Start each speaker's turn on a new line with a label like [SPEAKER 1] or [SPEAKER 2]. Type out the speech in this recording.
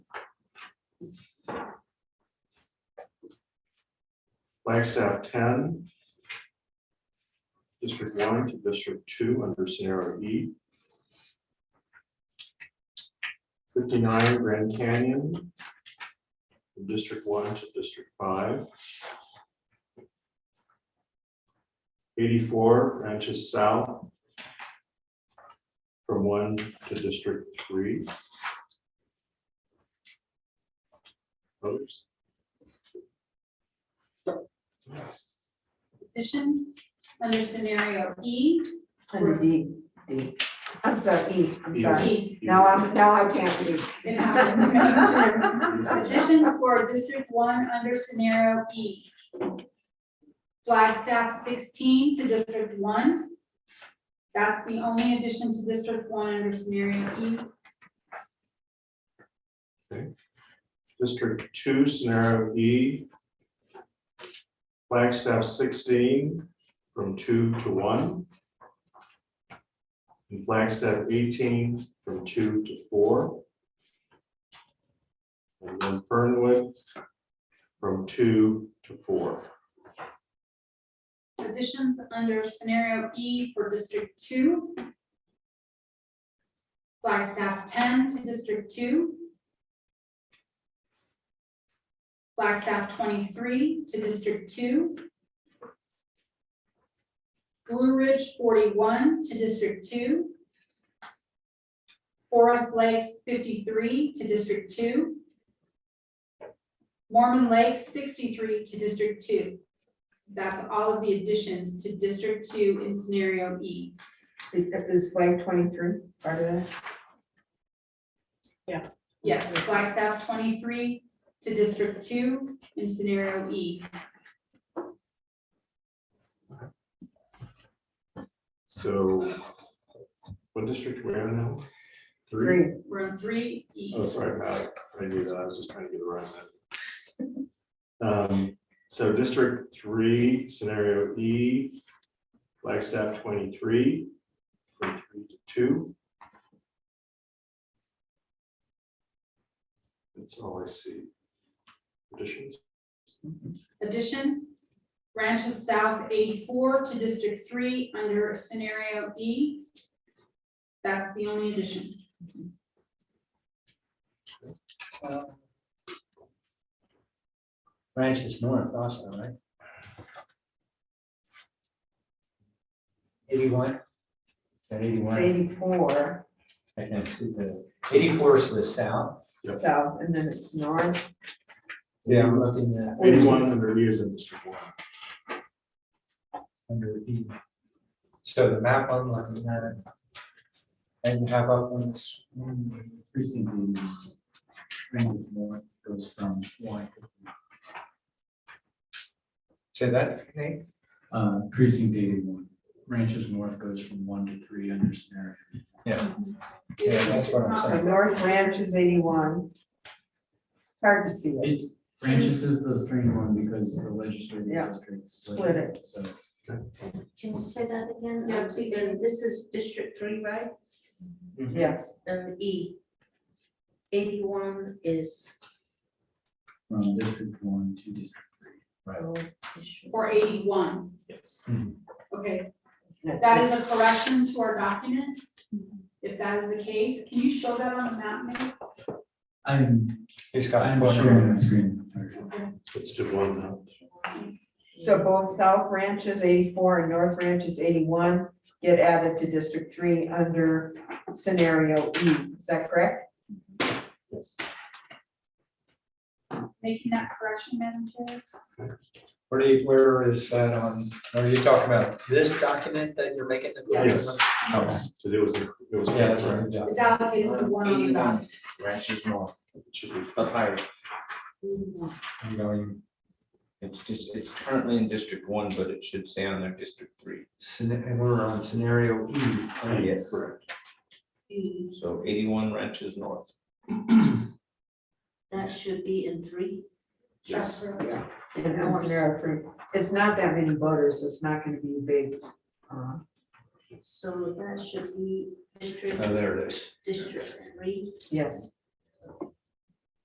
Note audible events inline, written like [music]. [SPEAKER 1] Flagstaff ten. District one to district two under scenario E. Fifty-nine Grand Canyon. from District one to district five. Eighty-four branches south. From one to district three. Others?
[SPEAKER 2] petitions under scenario E.
[SPEAKER 3] Under D, D. E. I'm sorry, E, I'm sorry.
[SPEAKER 2] E.
[SPEAKER 3] Now I'm, now I can't
[SPEAKER 2] [laughs]
[SPEAKER 3] [laughs] read.
[SPEAKER 2] And now it's making sure.
[SPEAKER 1] Yes.
[SPEAKER 2] Petitions for District One under scenario E. Flagstaff sixteen to District One. That's the only addition to District One under scenario E.
[SPEAKER 1] District two, scenario E. Flagstaff sixteen, from two to one. And Flagstaff eighteen, from two to four. And then Fernwood, from two to four.
[SPEAKER 2] Petitions under scenario E for District Two. Flagstaff ten to District Two. Flagstaff twenty-three to District Two. Blue Ridge forty-one to District Two. Forest Lakes fifty-three to District Two. Mormon Lake sixty-three to District Two. That's all of the additions to District Two in scenario E.
[SPEAKER 3] Is is flag twenty-three part of that?
[SPEAKER 2] Yes, Flagstaff twenty-three to District Two in scenario E.
[SPEAKER 1] So what district we're in now?
[SPEAKER 3] Three.
[SPEAKER 2] We're on three E.
[SPEAKER 1] Oh, sorry, Pat, I knew that, I was just trying to get around that. Um, so District Three, Scenario E, Flagstaff twenty-three, from three to two. That's all I see. Additions,
[SPEAKER 2] Additions, Ranches South eighty-four to District Three under scenario E. That's the only addition.
[SPEAKER 4] Ranch is north also, right? Eighty-one? At
[SPEAKER 3] It's
[SPEAKER 4] eighty-one,
[SPEAKER 3] eighty-four
[SPEAKER 4] I can see the, eighty-four is the south.
[SPEAKER 1] Yep.
[SPEAKER 3] south and then it's north.
[SPEAKER 4] Yeah. I'm looking at.
[SPEAKER 1] eighty-one under E is in District One.
[SPEAKER 4] Under E. So the map I'm looking at. And you have up on mm, this.
[SPEAKER 5] precinct in range north goes from one,
[SPEAKER 4] So that, Nate?
[SPEAKER 5] uh, precinct eighty-one. Ranches north goes from one to three under scenario.
[SPEAKER 4] Yeah, that's what I'm
[SPEAKER 3] So
[SPEAKER 4] saying.
[SPEAKER 3] North Ranch is eighty-one. It's hard to see it.
[SPEAKER 5] It's, ranches is the strange one because the legislative
[SPEAKER 3] Yeah.
[SPEAKER 5] district.
[SPEAKER 3] Split it.
[SPEAKER 5] So
[SPEAKER 6] Can you say that again?
[SPEAKER 2] Yeah,
[SPEAKER 6] Um,
[SPEAKER 2] please.
[SPEAKER 6] and This is District Three, right?
[SPEAKER 3] Yes,
[SPEAKER 6] And E. Eighty-one is.
[SPEAKER 5] from district one to district.
[SPEAKER 6] oh, District-
[SPEAKER 2] Or eighty-one.
[SPEAKER 4] Mhm.
[SPEAKER 2] Okay,
[SPEAKER 3] that's
[SPEAKER 2] that is a correction to our document. If that is the case, can you show that on the map, maybe?
[SPEAKER 5] I'm,
[SPEAKER 4] He's got.
[SPEAKER 5] I'm
[SPEAKER 4] corner.
[SPEAKER 5] sharing my screen.
[SPEAKER 1] Let's do one now.
[SPEAKER 3] it. So both South Ranch is eighty-four and North Ranch is eighty-one, get added to District Three under scenario E. Is that correct?
[SPEAKER 1] Yes.
[SPEAKER 2] Making that correction, Madam Chair?
[SPEAKER 4] Where do you, where is that on, are you talking about this document that you're making? the
[SPEAKER 2] Yes.
[SPEAKER 4] correction?
[SPEAKER 1] Because it was, it was.
[SPEAKER 4] Yeah, that's right. yeah.
[SPEAKER 2] It's allocated to one on the ballot.
[SPEAKER 7] Ranches north,
[SPEAKER 1] It should be-
[SPEAKER 7] up higher, you know, you- It's just, it's currently in District One, but it should say on there District Three.
[SPEAKER 4] Scena- And we're on scenario E. right?
[SPEAKER 7] Yes.
[SPEAKER 1] Correct.
[SPEAKER 6] E.
[SPEAKER 7] So eighty-one Ranches north.
[SPEAKER 6] That should be in three.
[SPEAKER 1] Yes.
[SPEAKER 6] Yeah.
[SPEAKER 3] And on scenario three, it's not that many voters, so it's not gonna be a big, uh,
[SPEAKER 6] So that should be District,
[SPEAKER 7] Oh, there it is.
[SPEAKER 6] District Three.
[SPEAKER 3] yes.